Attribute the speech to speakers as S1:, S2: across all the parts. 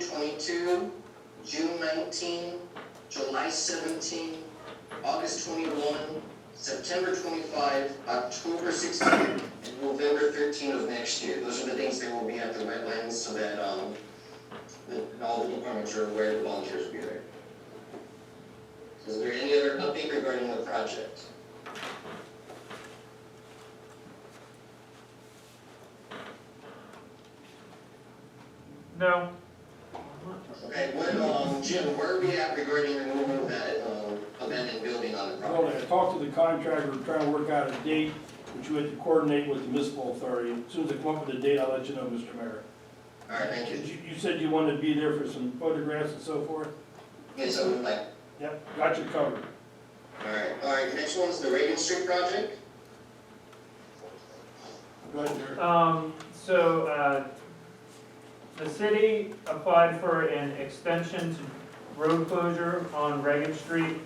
S1: 22, June 19, July 17, August 21, September 25, October 16, and November 13 of next year. Those are the dates they will be at the wetlands so that, um, that all the departments are aware, the volunteers will be there. Is there any other update regarding the project?
S2: No,
S1: Okay, what, um, Jim, where are we at regarding removal of that, um, abandoned building on the
S3: Well,
S1: property?
S3: I talked to the contractor, we're trying to work out a date, which we had to coordinate with the municipal authority. As soon as I come up with a date, I'll let you know, Mr. Mayor.
S1: All right, thank
S3: You,
S1: you.
S3: you said you wanted to be there for some photographs and so forth?
S1: Yes, I would like,
S3: Yep, got you covered.
S1: all right, all right, the next one's the Reagan Street project.
S3: Go ahead, Derek.
S2: um, so, uh, the city applied for an extension to road closure on Reagan Street,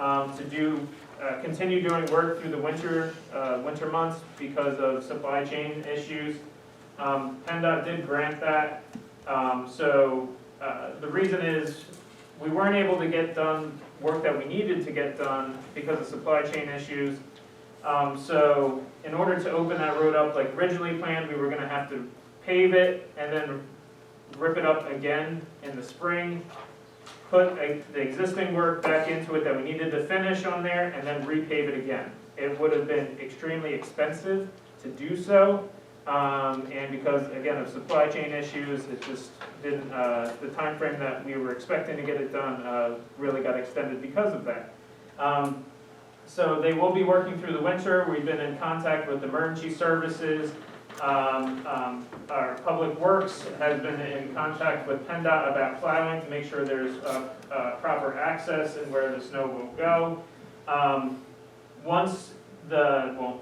S2: um, to do, uh, continue doing work through the winter, uh, winter months because of supply chain issues. Um, PennDOT did grant that, um, so, uh, the reason is, we weren't able to get done work that we needed to get done because of supply chain issues. Um, so in order to open that road up like originally planned, we were gonna have to pave it and then rip it up again in the spring. Put a- the existing work back into it that we needed to finish on there and then repave it again. It would have been extremely expensive to do so. Um, and because again of supply chain issues, it just didn't, uh, the timeframe that we were expecting to get it done, uh, really got extended because of that. Um, so they will be working through the winter, we've been in contact with emergency services. Um, um, our public works has been in contact with PennDOT about plowing to make sure there's, uh, uh, proper access and where the snow will go. Um, once the, well,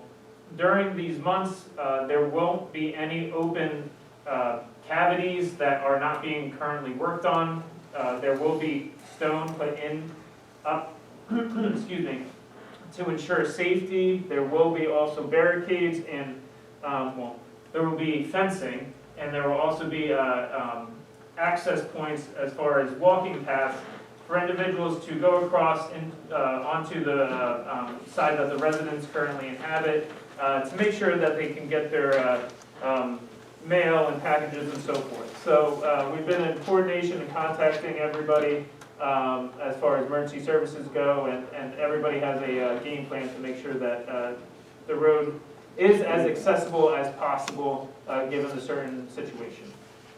S2: during these months, uh, there won't be any open, uh, cavities that are not being currently worked on. Uh, there will be stone put in, up, excuse me, to ensure safety, there will be also barricades and, um, well, there will be fencing, and there will also be, uh, um, access points as far as walking paths for individuals to go across and, uh, onto the, uh, um, side that the residents currently inhabit, uh, to make sure that they can get their, uh, um, mail and packages and so forth. So, uh, we've been in coordination and contacting everybody, um, as far as emergency services go, and, and everybody has a, uh, game plan to make sure that, uh, the road is as accessible as possible, uh, given the certain situation.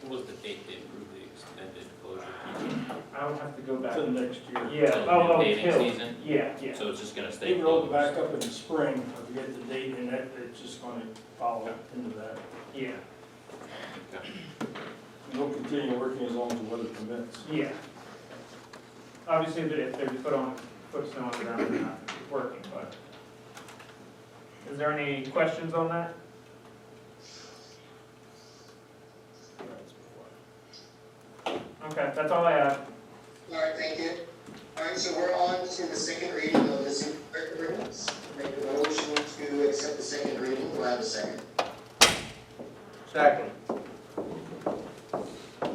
S4: What was the date they approved the extended closure?
S2: I would have to go back.
S3: To the next year.
S2: Yeah, oh, oh,
S4: Paving
S2: Hill,
S4: season,
S2: yeah, yeah,
S4: so it's just gonna stay
S3: They rolled
S4: closed?
S3: back up in the spring, I forget the date, and that, it's just gonna follow into that.
S2: yeah,
S3: We'll continue working as long as the weather permits.
S2: yeah. Obviously, if they- if they're put on, put snow on the ground, they're not working, but. Is there any questions on that? Okay, that's all I have.
S1: All right, thank you. All right, so we're on to the second reading of the secret agreements. Make a motion to accept the second reading, do I have a second?
S5: Second.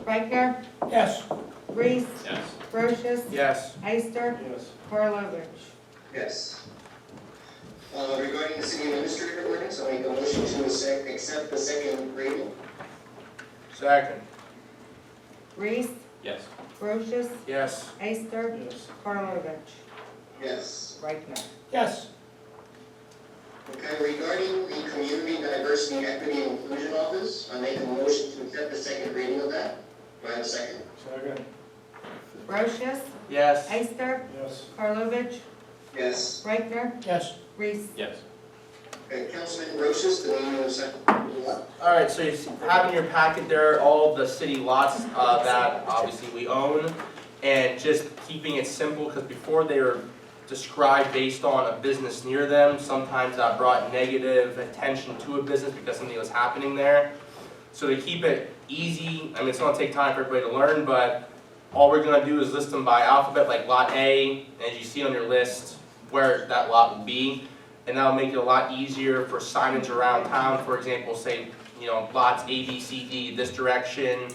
S6: Rechner,
S3: Yes.
S6: Reese,
S4: Yes,
S6: Brochus,
S5: Yes.
S6: Eister,
S3: Yes.
S6: Karlovic.
S1: Yes. Uh, regarding the city administrator ordinance, I'll make a motion to sec- accept the second reading.
S5: Second.
S6: Reese,
S4: yes,
S6: Brochus,
S5: Yes.
S6: Eister,
S3: Yes.
S6: Karlovic.
S1: Yes.
S6: Rechner.
S3: Yes.
S1: Okay, regarding the community diversity, equity, and inclusion office, I make a motion to accept the second reading of that. Do I have a second?
S3: Second.
S6: Brochus,
S5: Yes.
S6: Eister,
S3: Yes.
S6: Karlovic,
S1: Yes.
S6: Rechner,
S3: Yes.
S6: Reese.
S4: yes.
S1: Okay, Councilman Rosas, the name of the second.
S5: All right, so you see- have in your packet there all the city lots uh, that obviously we own. And just keeping it simple, because before they were described based on a business near them, sometimes that brought negative attention to a business because something was happening there. So to keep it easy, I mean, it's gonna take time for everybody to learn, but all we're gonna do is list them by alphabet, like Lot A, as you see on your list, where that lot will be. And that'll make it a lot easier for signage around town, for example, say, you know, lots A, B, C, D, this direction,